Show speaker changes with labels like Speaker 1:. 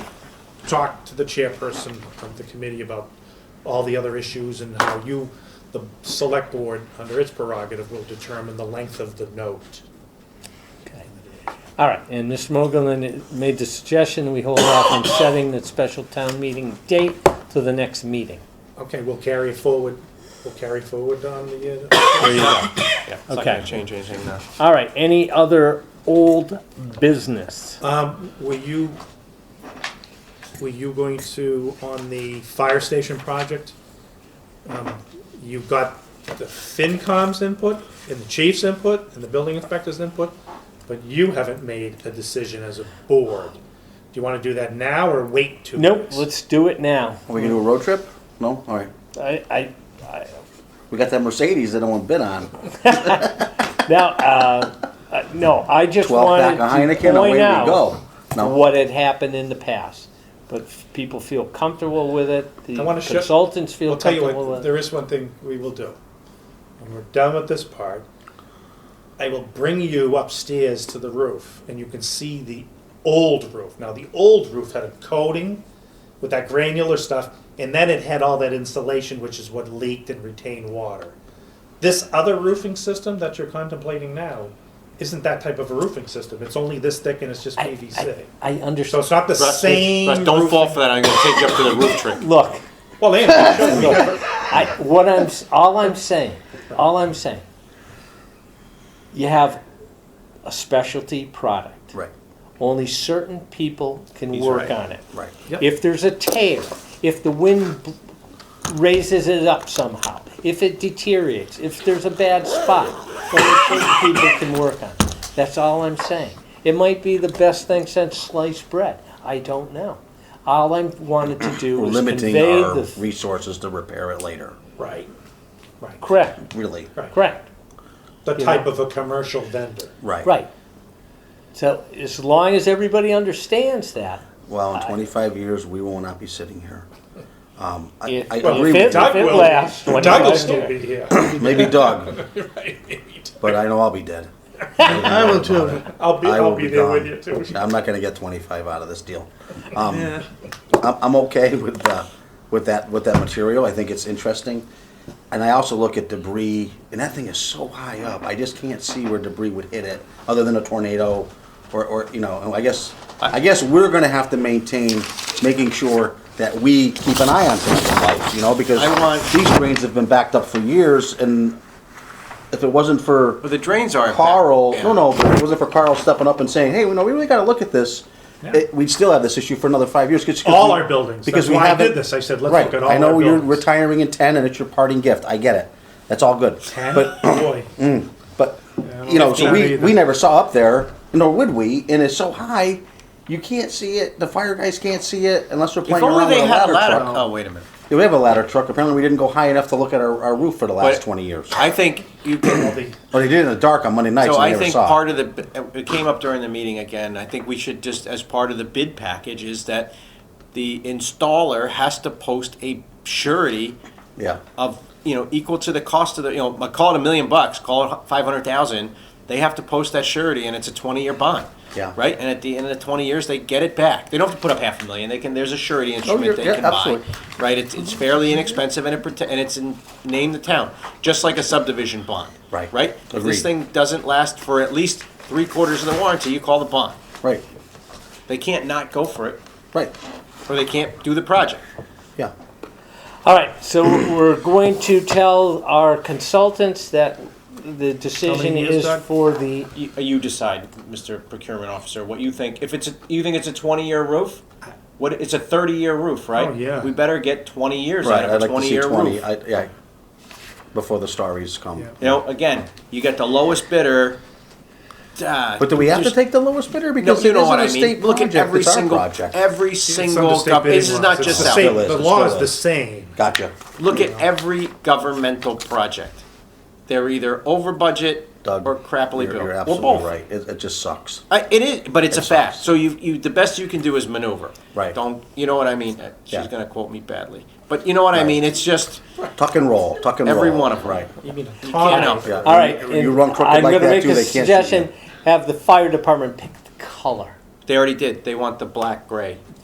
Speaker 1: talked to the chairperson of the committee about all the other issues and how you, the select board, under its prerogative, will determine the length of the note.
Speaker 2: Okay. All right, and Mr. Mogulyn made the suggestion we hold off on setting the special town meeting date to the next meeting.
Speaker 1: Okay, we'll carry it forward, we'll carry forward on the, uh,
Speaker 2: There you go.
Speaker 3: Yeah, it's not
Speaker 2: Okay.
Speaker 3: gonna change anything now.
Speaker 2: All right, any other old business?
Speaker 1: uh, um, were you, were you going to, on the fire station project? um, You got the FinCom's input, and the chief's input, and the building inspector's input, but you haven't made a decision as a board. Do you wanna do that now or wait two
Speaker 2: Nope,
Speaker 1: weeks?
Speaker 2: let's do it now.
Speaker 4: Are we gonna do a road trip? No? All right.
Speaker 2: I, I, I,
Speaker 4: We got that Mercedes that no one bid on.
Speaker 2: now, uh, uh, no, I just
Speaker 4: 12
Speaker 2: wanted
Speaker 4: pack of
Speaker 2: to
Speaker 4: Heineken, away we
Speaker 2: point out
Speaker 4: go. No,
Speaker 2: what had happened in the past. But f- people feel comfortable with it, the
Speaker 1: I wanna show-
Speaker 2: consultants feel
Speaker 1: I'll tell you
Speaker 2: comfortable
Speaker 1: what,
Speaker 2: with it.
Speaker 1: there is one thing we will do. When we're done with this part, I will bring you upstairs to the roof and you can see the old roof. Now, the old roof had a coating with that granular stuff and then it had all that insulation, which is what leaked and retained water. This other roofing system that you're contemplating now isn't that type of a roofing system. It's only this thick and it's just
Speaker 2: I,
Speaker 1: PVC.
Speaker 2: I, I
Speaker 1: So
Speaker 2: understand.
Speaker 1: it's not the
Speaker 3: Russ,
Speaker 1: same.
Speaker 3: Russ, don't fall
Speaker 1: roofing-
Speaker 3: for that. I'm gonna take you up to the roof trick.
Speaker 2: Look,
Speaker 1: Well, they ain't showing me.
Speaker 2: I, what I'm, s- all I'm saying, all I'm saying, you have a specialty product.
Speaker 4: right,
Speaker 2: Only certain people can
Speaker 3: He's
Speaker 2: work
Speaker 3: right.
Speaker 2: on it.
Speaker 4: right.
Speaker 2: If there's a tear, if the wind b- raises it up somehow, if it deteriorates, if there's a bad spot, only certain people can work on it. That's all I'm saying. It might be the best thing since sliced bread. I don't know. All I wanted to do
Speaker 4: We're
Speaker 2: was
Speaker 4: limiting
Speaker 2: convey
Speaker 4: our
Speaker 2: the,
Speaker 4: resources to repair it later,
Speaker 1: Right, right.
Speaker 2: correct,
Speaker 4: really.
Speaker 1: Right.
Speaker 2: correct.
Speaker 1: the
Speaker 2: You
Speaker 1: type
Speaker 2: know?
Speaker 1: of a commercial vendor.
Speaker 4: Right.
Speaker 2: Right. So as long as everybody understands that,
Speaker 4: Well, in twenty-five years, we will not be sitting here. Um, I,
Speaker 2: If-
Speaker 4: I
Speaker 2: well,
Speaker 4: agree
Speaker 2: if
Speaker 4: with
Speaker 2: it-
Speaker 1: Doug
Speaker 2: Doug
Speaker 1: will,
Speaker 2: lasts
Speaker 1: Doug will
Speaker 2: 25
Speaker 1: still be
Speaker 2: years.
Speaker 1: here.
Speaker 4: you, maybe Doug, but I know I'll be dead. I will too.
Speaker 1: I'll be,
Speaker 4: I
Speaker 1: I'll
Speaker 4: will
Speaker 1: be
Speaker 4: be
Speaker 1: there
Speaker 4: gone.
Speaker 1: with you too.
Speaker 4: I'm not gonna get twenty-five out of this deal. Um, I'm, I'm okay with, uh, with that, with that material, I think it's interesting. And I also look at debris, and that thing is so high up, I just can't see where debris would hit it, other than a tornado, or, or, you know, and I guess, I guess we're gonna have to maintain, making sure that we keep an eye on things in life, you know, because
Speaker 3: I want-
Speaker 4: these drains have been backed up for years, and if it wasn't for
Speaker 3: But the drains aren't. that-
Speaker 4: Carl,
Speaker 3: yeah.
Speaker 4: no, no, but it wasn't for Carl stepping up and saying, "Hey, we know we really got to look at this." It, we'd still have this issue for another five years. 'cause- 'cause
Speaker 1: All
Speaker 4: we-
Speaker 1: our buildings.
Speaker 4: Because
Speaker 1: That's
Speaker 4: we
Speaker 1: why I
Speaker 4: haven't-
Speaker 1: did this. I said, let's
Speaker 4: right.
Speaker 1: look at all
Speaker 4: I know
Speaker 1: our
Speaker 4: you're
Speaker 1: buildings.
Speaker 4: retiring in ten, and it's your parting gift. I get it. That's all good. But
Speaker 1: boy,
Speaker 4: but
Speaker 1: don't
Speaker 4: you know, so
Speaker 1: think
Speaker 4: we
Speaker 1: either.
Speaker 4: we never saw up there, nor would we. And it's so high, you can't see it. The fire guys can't see it unless we're
Speaker 3: If
Speaker 4: playing
Speaker 3: only
Speaker 4: around
Speaker 3: they
Speaker 4: with a
Speaker 3: had
Speaker 4: ladder,
Speaker 3: a ladder.
Speaker 4: truck.
Speaker 3: Oh, wait a minute.
Speaker 4: Yeah, we have a ladder truck. Apparently, we didn't go high enough to look at our, our roof for the last
Speaker 3: But-
Speaker 4: twenty years.
Speaker 3: I think you can.
Speaker 1: the-
Speaker 4: But they did it in the dark on Monday nights.
Speaker 3: So
Speaker 4: and we
Speaker 3: I
Speaker 4: never
Speaker 3: think
Speaker 4: saw it.
Speaker 3: part of the, uh, it came up during the meeting again, I think we should just, as part of the bid package, is that the installer has to post a surety
Speaker 4: yeah.
Speaker 3: of, you know, equal to the cost of the, you know, call it a million bucks, call it five hundred thousand, they have to post that surety and it's a twenty-year bond.
Speaker 4: Yeah.
Speaker 3: Right, and at the end of the twenty years, they get it back, they don't have to put up half a million, they can, there's a surety
Speaker 4: Oh, you're-
Speaker 3: instrument they
Speaker 4: yeah,
Speaker 3: can buy.
Speaker 4: absolutely.
Speaker 3: Right, it's, it's fairly inexpensive and it, prote- and it's in, name the town, just like a subdivision bond.
Speaker 4: Right.
Speaker 3: Right? If
Speaker 4: Agreed.
Speaker 3: this thing doesn't last for at least three quarters of the warranty, you call the bond.
Speaker 4: Right.
Speaker 3: They can't not go for it,
Speaker 4: Right.
Speaker 3: or they can't do the project.
Speaker 4: Yeah.
Speaker 2: all right, so we're going to tell our consultants that the decision
Speaker 1: years,
Speaker 2: is
Speaker 1: Doug?
Speaker 2: for the
Speaker 3: You, uh, you decide, Mr. Procurement Officer, what you think. If it's, a, you think it's a twenty-year roof? What, it's a thirty-year roof, right?
Speaker 1: Oh, yeah.
Speaker 3: We better get twenty years
Speaker 4: Right.
Speaker 3: out
Speaker 4: I'd
Speaker 3: of a
Speaker 4: like to see
Speaker 3: twenty-year
Speaker 4: twenty.
Speaker 3: roof.
Speaker 4: I, yeah. Before the starries come.
Speaker 1: Yeah.
Speaker 3: You know, again, you get the lowest bidder. Ah,
Speaker 4: But do we have to
Speaker 3: just-
Speaker 4: take the lowest bidder
Speaker 3: No,
Speaker 4: because
Speaker 3: you
Speaker 4: it
Speaker 3: know
Speaker 4: isn't
Speaker 3: what
Speaker 4: a
Speaker 3: I mean.
Speaker 4: state
Speaker 3: Look at
Speaker 4: project?
Speaker 3: every
Speaker 4: it's our
Speaker 3: single,
Speaker 4: project.
Speaker 3: every
Speaker 1: it's under
Speaker 3: single,
Speaker 1: state
Speaker 3: gov-
Speaker 1: bidding
Speaker 3: this is
Speaker 1: laws.
Speaker 3: not
Speaker 1: It's
Speaker 3: just
Speaker 1: the
Speaker 3: that.
Speaker 1: same-
Speaker 4: Still is,
Speaker 1: The
Speaker 4: it
Speaker 1: law
Speaker 4: still
Speaker 1: is the
Speaker 4: is.
Speaker 1: same.
Speaker 4: Gotcha,
Speaker 3: Look at every governmental project. They're either over budget
Speaker 4: Doug.
Speaker 3: or crappily
Speaker 4: you're,
Speaker 3: built.
Speaker 4: You're
Speaker 3: Well,
Speaker 4: absolutely
Speaker 3: both.
Speaker 4: right. It, it just sucks.
Speaker 3: I, it is, but it's a
Speaker 4: It
Speaker 3: fact.
Speaker 4: sucks.
Speaker 3: So you, you, the best you can do is maneuver.
Speaker 4: Right.
Speaker 3: Don't, you know what I mean? Uh, She's
Speaker 4: Yeah.
Speaker 3: gonna quote me badly, but you know what I
Speaker 4: Right.
Speaker 3: mean? It's just,
Speaker 4: Tuck and roll. Tuck and roll.
Speaker 3: Every one of 'em.
Speaker 4: Right.
Speaker 1: You mean a
Speaker 3: can't
Speaker 1: tornado?
Speaker 3: help
Speaker 4: Yeah.
Speaker 2: All right,
Speaker 4: You, you
Speaker 2: and
Speaker 4: run crooked
Speaker 2: I'm
Speaker 4: like
Speaker 2: gonna
Speaker 4: that
Speaker 2: make
Speaker 4: too.
Speaker 2: a
Speaker 4: they can't see you.
Speaker 2: suggestion. Have the fire department pick the color.
Speaker 3: they already did. They want the black gray.